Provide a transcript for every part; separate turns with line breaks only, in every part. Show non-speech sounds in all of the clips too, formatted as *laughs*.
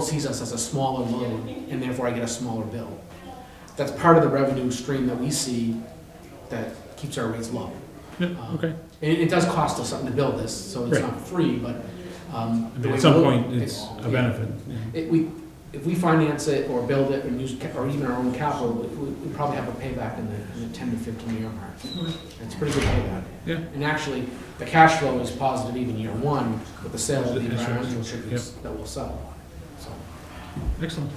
sees us as a smaller loan, and therefore I get a smaller bill. That's part of the revenue stream that we see that keeps our rates low.
Yeah,
Um,
okay.
And it it does cost us something to build this, so it's
Right.
not free, but. um,
I
the
mean,
way
at
we
some
look-
point, it's a
yeah.
benefit.
If we, if we finance it or build it and use, ca- or even our own capital, we, we we probably have a payback in the, in the ten to fifteen year mark. It's a pretty good payback.
Yeah.
And actually, the cash flow is positive even year one with the sale of the
That's right.
environmental attributes that we'll sell. So,
Excellent.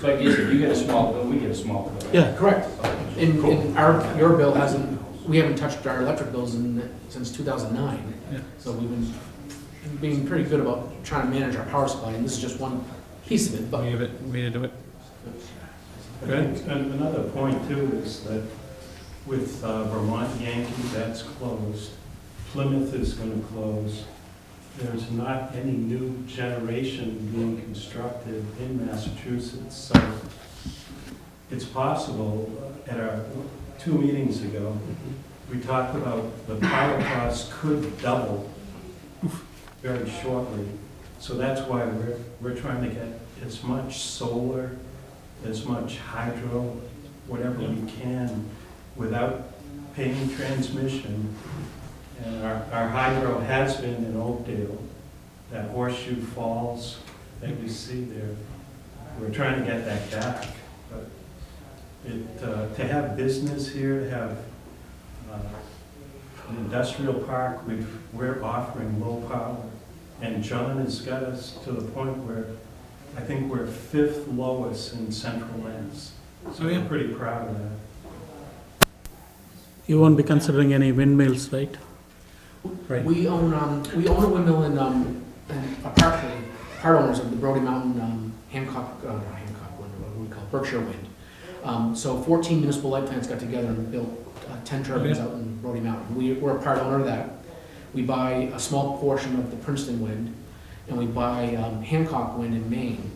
So I guess if you get a small bill, we get a small bill.
Yeah.
Correct.
Okay.
And,
Cool.
and our, your bill hasn't, we haven't touched our electric bills in, since two thousand nine.
Yeah.
So we've been, being pretty good about trying to manage our power supply, and this is just one piece of it,
We
but
have it, way to do it.
I
Go ahead.
think And another point too is that with uh, Vermont Yankee, that's closed. Plymouth is going to close. There's not any new generation being constructed in Massachusetts, so it's possible, uh, at our, two meetings ago, we talked about the power costs could double very shortly. So that's why we're, we're trying to get as much solar as much hydro, whatever we can, without paying transmission. And our, our hydro has been in Oakdale, that horseshoe falls that you see there. We're trying to get that back, but it, uh, to have business here, to have uh, an industrial park, we've, we're offering low power. And John has got us to the point where I think we're fifth lowest in central Mass. So
Oh, yeah.
we're pretty proud of that.
You won't be considering any windmills, right?
Right.
we own, um, we own a windmill in, um, in- a part, part owners of the Brody Mountain, um, Hancock, uh, not Hancock Wind, what do we call it, Berkshire Wind. Um, so fourteen municipal light plants got together and built uh, ten turbines
Okay.
out in Brody Mountain. We, we're a part owner of that. We buy a small portion of the Princeton Wind, and we buy, um, Hancock Wind in Maine,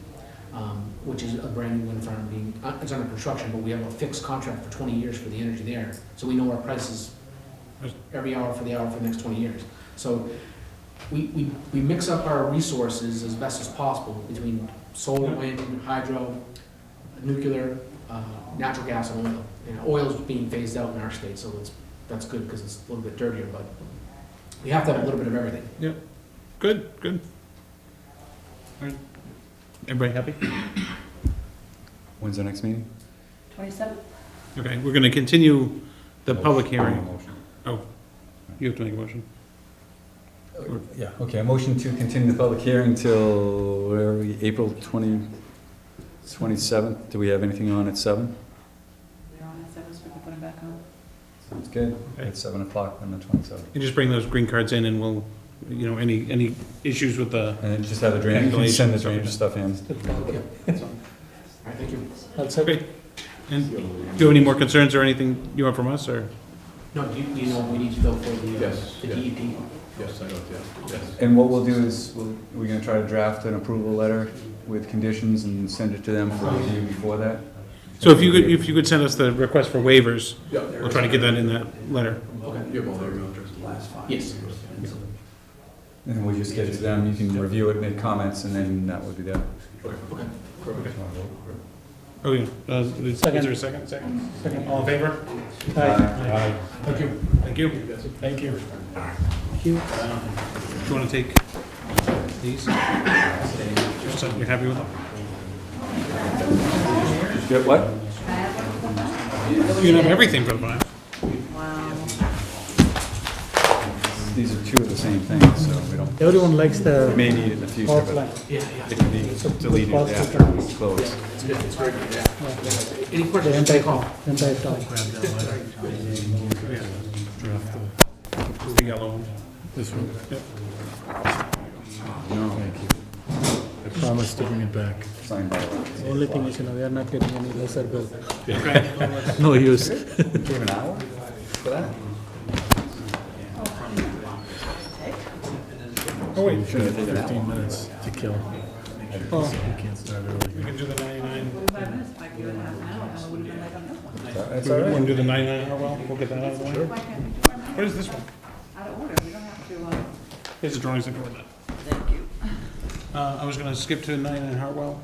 um, which is a brand new wind farm being, uh, it's under construction, but we have a fixed contract for twenty years for the energy there. So we know our prices every hour for the hour for the next twenty years. So we, we, we mix up our resources as best as possible between solar, wind, hydro, nuclear, uh, natural gas and oil. And oil's being phased out in our state, so it's, that's good because it's a little bit dirtier, but we have to have a little bit of
*laughs*
everything.
Good, good. All right. Everybody happy?
When's the next meeting?
Twenty-seven?
Okay, we're gonna continue the
Oh,
public hearing.
motion.
You have to make a motion.
Yeah, okay, a motion to continue the public hearing till, where are we, April twenty, twenty-seventh? Do we have anything on at seven?
They're on at seven, so we can put them back on.
Sounds good.
Okay.
At seven o'clock on the twenty-seventh.
You just bring those green cards in and we'll, you know, any, any issues with the,
And then just have the drainage, you can send the drainage stuff in.
All right, thank you.
That's
okay. And do you have any more concerns or anything you want from us or?
No, do you, do you know what we need to go for the, uh,
Yes,
the
yeah.
DEP?
Yes, I don't, yeah, yes.
And what we'll do is, we'll- we're gonna try to draft an approval letter with conditions and send it to them for review before that.
So if you could, if you could send us the request for waivers,
Yeah.
we'll try to get that in that letter.
Okay.
You have all their addresses. Last five.
Yes.
And we'll just get it to them, you can review it, make comments, and then that would be that.
Okay.
Do
Perfect.
you wanna vote?
Oh, yeah. Uh, Is is there a second? Second. Second. All in favor? Aye.
Thank you.
Thank you. Thank you. Um,
Thank you.
Do you want to take these? Just so you're happy with them?
Get what?
You can have everything for the file.
Wow.
These are two of the same things, so we don't,
Everyone likes
we
the
may need it in the future, but
offline.
Yeah, yeah.
it can be deleted after it's closed.
It's good, it's very good, yeah. Any
The
questions,
entire
take call.
entire town.
The yellow one.
This one,
No,
I promised to bring it back.
signed by the way.
The Only thing is, you know, we are not getting any lesser bill.
No use.
Give an hour for that?
Oh, wait.
Should have taken that one.
minutes to kill.
Oh,
Can't start early.
We can do the 99,
Forty-five minutes, might be a half an hour, I would have been like, on this one.
That's
we
all
want
right.
to do the 99 hour well, we'll get that out of the way.
Why can't we do our
What
minutes?
is this one?
Out of order, we don't have to, uh.
Here's the drawings that go with that.
Thank you.
Uh, I was going to skip to 99 Hartwell.